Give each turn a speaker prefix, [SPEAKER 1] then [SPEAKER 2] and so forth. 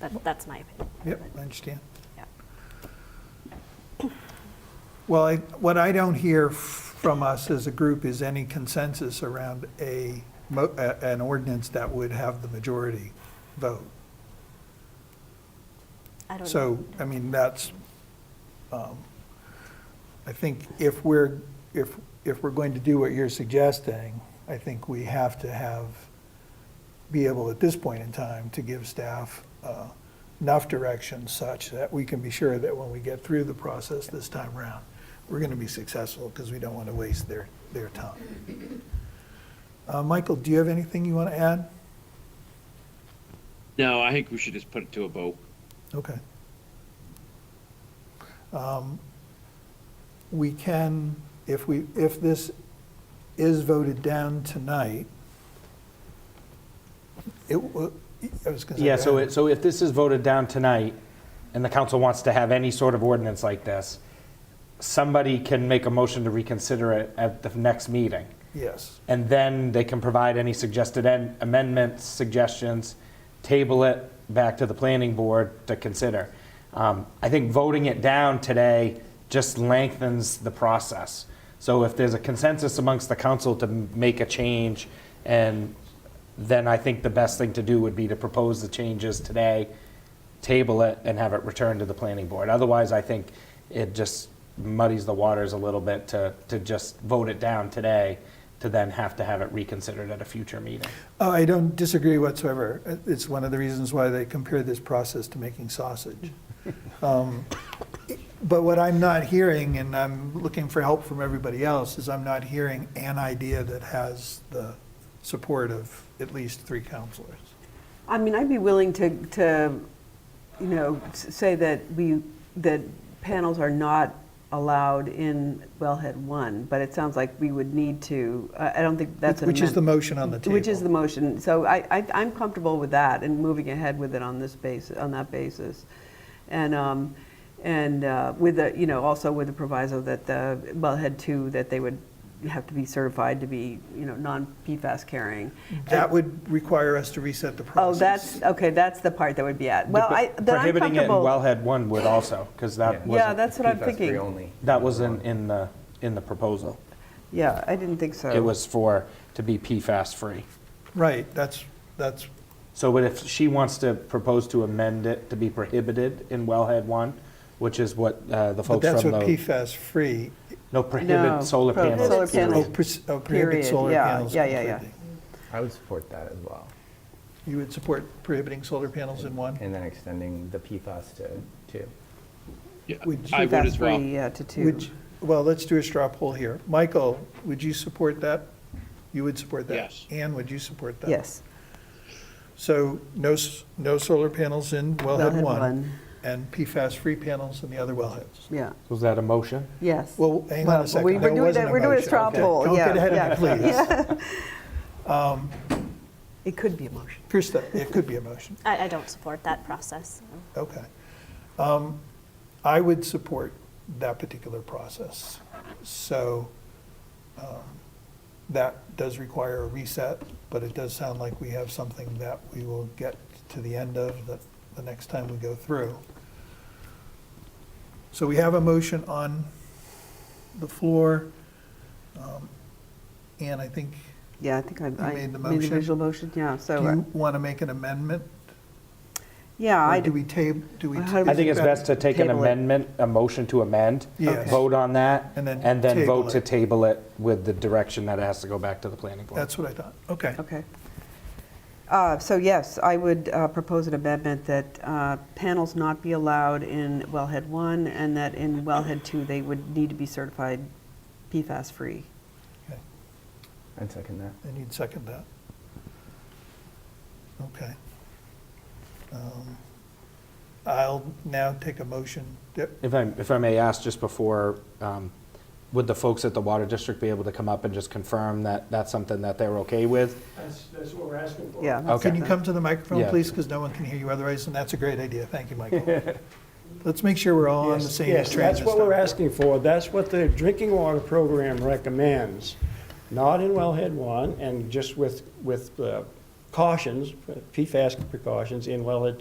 [SPEAKER 1] That, that's my opinion.
[SPEAKER 2] Yep, I understand.
[SPEAKER 1] Yeah.
[SPEAKER 2] Well, I- what I don't hear from us as a group is any consensus around a, mo- a- an ordinance that would have the majority vote.
[SPEAKER 1] I don't know.
[SPEAKER 2] So, I mean, that's, um, I think if we're, if, if we're going to do what you're suggesting, I think we have to have, be able at this point in time to give staff uh, enough direction such that we can be sure that when we get through the process this time around, we're going to be successful because we don't want to waste their, their time. Uh, Michael, do you have anything you want to add?
[SPEAKER 3] No, I think we should just put it to a vote.
[SPEAKER 2] Okay. Um, We can, if we, if this is voted down tonight, it, wa- I was gonna say.
[SPEAKER 4] Yeah,
[SPEAKER 2] go
[SPEAKER 4] so
[SPEAKER 2] ahead.
[SPEAKER 4] it, so if this is voted down tonight, and the council wants to have any sort of ordinance like this, somebody can make a motion to reconsider it at the next meeting.
[SPEAKER 2] Yes,
[SPEAKER 4] And then they can provide any suggested en- amendments, suggestions, table it back to the planning board to consider. Um, I think voting it down today just lengthens the process. So if there's a consensus amongst the council to m- make a change, and then I think the best thing to do would be to propose the changes today, table it, and have it returned to the planning board. Otherwise, I think it just muddies the waters a little bit to, to just vote it down today, to then have to have it reconsidered at a future meeting.
[SPEAKER 2] Oh, I don't disagree whatsoever. It- It's one of the reasons why they compare this process to making sausage. Um, But what I'm not hearing, and I'm looking for help from everybody else, is I'm not hearing an idea that has the support of at least three counselors.
[SPEAKER 5] I mean, I'd be willing to, to, you know, s- say that we, that panels are not allowed in wellhead one, but it sounds like we would need to, I I don't think that's an
[SPEAKER 2] Which is the
[SPEAKER 5] amend-
[SPEAKER 2] motion on the table.
[SPEAKER 5] Which is the motion. So I, I, I'm comfortable with that and moving ahead with it on this basis, on that basis. And, um, and uh, with the, you know, also with the proviso that the wellhead two, that they would have to be certified to be, you know, non-PFAS carrying.
[SPEAKER 2] That would require us to reset the process.
[SPEAKER 5] Oh, that's, okay, that's the part that would be at. Well, I, then I'm
[SPEAKER 4] Prohibiting it in
[SPEAKER 5] comfortable.
[SPEAKER 4] wellhead one would also, because that
[SPEAKER 5] Yeah,
[SPEAKER 4] wasn't,
[SPEAKER 5] that's what I'm
[SPEAKER 6] PFAS free
[SPEAKER 5] thinking.
[SPEAKER 6] only.
[SPEAKER 4] that wasn't in the, in the proposal.
[SPEAKER 5] Yeah, I didn't think so.
[SPEAKER 4] It was for, to be PFAS-free.
[SPEAKER 2] Right, that's, that's,
[SPEAKER 4] So but if she wants to propose to amend it to be prohibited in wellhead one, which is what uh, the
[SPEAKER 2] but
[SPEAKER 4] folks
[SPEAKER 2] that's
[SPEAKER 4] from
[SPEAKER 2] what
[SPEAKER 4] the,
[SPEAKER 2] PFAS-free,
[SPEAKER 4] no,
[SPEAKER 5] No,
[SPEAKER 4] prohibit solar
[SPEAKER 5] pro-
[SPEAKER 4] panels.
[SPEAKER 5] Solar
[SPEAKER 2] oh,
[SPEAKER 5] panels,
[SPEAKER 2] pres- oh, prohibit
[SPEAKER 5] Period,
[SPEAKER 2] solar
[SPEAKER 5] yeah,
[SPEAKER 2] panels
[SPEAKER 5] yeah, yeah, yeah.
[SPEAKER 2] completely.
[SPEAKER 6] I would support that as well.
[SPEAKER 2] You would support prohibiting solar panels in one?
[SPEAKER 6] And then extending the PFAS to two.
[SPEAKER 3] Yeah,
[SPEAKER 2] Would
[SPEAKER 3] I would as well.
[SPEAKER 5] PFAS-free, yeah, to two.
[SPEAKER 2] Would, well, let's do a straw poll here. Michael, would you support that? You would support that?
[SPEAKER 3] Yes.
[SPEAKER 2] Anne, would you support that?
[SPEAKER 5] Yes.
[SPEAKER 2] So no, s- no solar panels in wellhead
[SPEAKER 5] Wellhead
[SPEAKER 2] one,
[SPEAKER 5] one.
[SPEAKER 2] and PFAS-free panels in the other wellheads?
[SPEAKER 5] Yeah,
[SPEAKER 4] Was that a motion?
[SPEAKER 5] yes.
[SPEAKER 2] Well, hang on
[SPEAKER 5] Well,
[SPEAKER 2] a second.
[SPEAKER 5] we-
[SPEAKER 2] There
[SPEAKER 5] We're doing,
[SPEAKER 2] wasn't
[SPEAKER 5] that- we're doing a
[SPEAKER 2] motion.
[SPEAKER 5] straw
[SPEAKER 2] Okay.
[SPEAKER 5] poll,
[SPEAKER 2] Don't
[SPEAKER 5] yeah.
[SPEAKER 2] get ahead of me,
[SPEAKER 5] yeah,
[SPEAKER 2] please.
[SPEAKER 5] yeah. It could be a motion.
[SPEAKER 2] Krista, it could be a motion.
[SPEAKER 1] I, I don't support that process.
[SPEAKER 2] Okay. Um, I would support that particular process. So um, that does require a reset, but it does sound like we have something that we will get to the end of the, the next time we go through. So we have a motion on the floor. Um, And I think,
[SPEAKER 5] Yeah, I think I, I
[SPEAKER 2] made
[SPEAKER 5] made
[SPEAKER 2] the
[SPEAKER 5] the
[SPEAKER 2] motion?
[SPEAKER 5] visual motion, yeah,
[SPEAKER 2] do
[SPEAKER 5] so, uh,
[SPEAKER 2] you want to make an amendment?
[SPEAKER 5] yeah,
[SPEAKER 2] Or
[SPEAKER 5] I,
[SPEAKER 2] do we table, do we?
[SPEAKER 5] Well, how do
[SPEAKER 4] I think it's best to take an
[SPEAKER 5] Table it.
[SPEAKER 4] amendment, a motion to amend,
[SPEAKER 2] Yes.
[SPEAKER 4] vote on that,
[SPEAKER 2] And then
[SPEAKER 4] and then
[SPEAKER 2] table
[SPEAKER 4] vote to
[SPEAKER 2] it.
[SPEAKER 4] table it with the direction that it has to go back to the planning board.
[SPEAKER 2] That's what I thought. Okay.
[SPEAKER 5] okay. Uh, So yes, I would uh, propose an amendment that uh, panels not be allowed in wellhead one, and that in wellhead two, they would need to be certified PFAS-free.
[SPEAKER 2] Okay.
[SPEAKER 6] I'd second that.
[SPEAKER 2] And you'd second that? Okay. Um, I'll now take a motion. Yep,
[SPEAKER 4] If I, if I may ask just before, um, would the folks at the water district be able to come up and just confirm that that's something that they're okay with?
[SPEAKER 7] That's, that's what we're asking for.
[SPEAKER 5] Yeah.
[SPEAKER 4] Okay.
[SPEAKER 2] Can you come to the microphone,
[SPEAKER 4] Yeah.
[SPEAKER 2] please? Because no one can hear you otherwise, and that's a great idea. Thank you, Michael. Let's make sure we're all on the
[SPEAKER 7] Yes,
[SPEAKER 2] same train
[SPEAKER 7] Yes,
[SPEAKER 2] this
[SPEAKER 7] that's what we're
[SPEAKER 2] time.
[SPEAKER 7] asking for. That's what the drinking water program recommends. Not in wellhead one, and just with, with uh, cautions, PFAS precautions in wellhead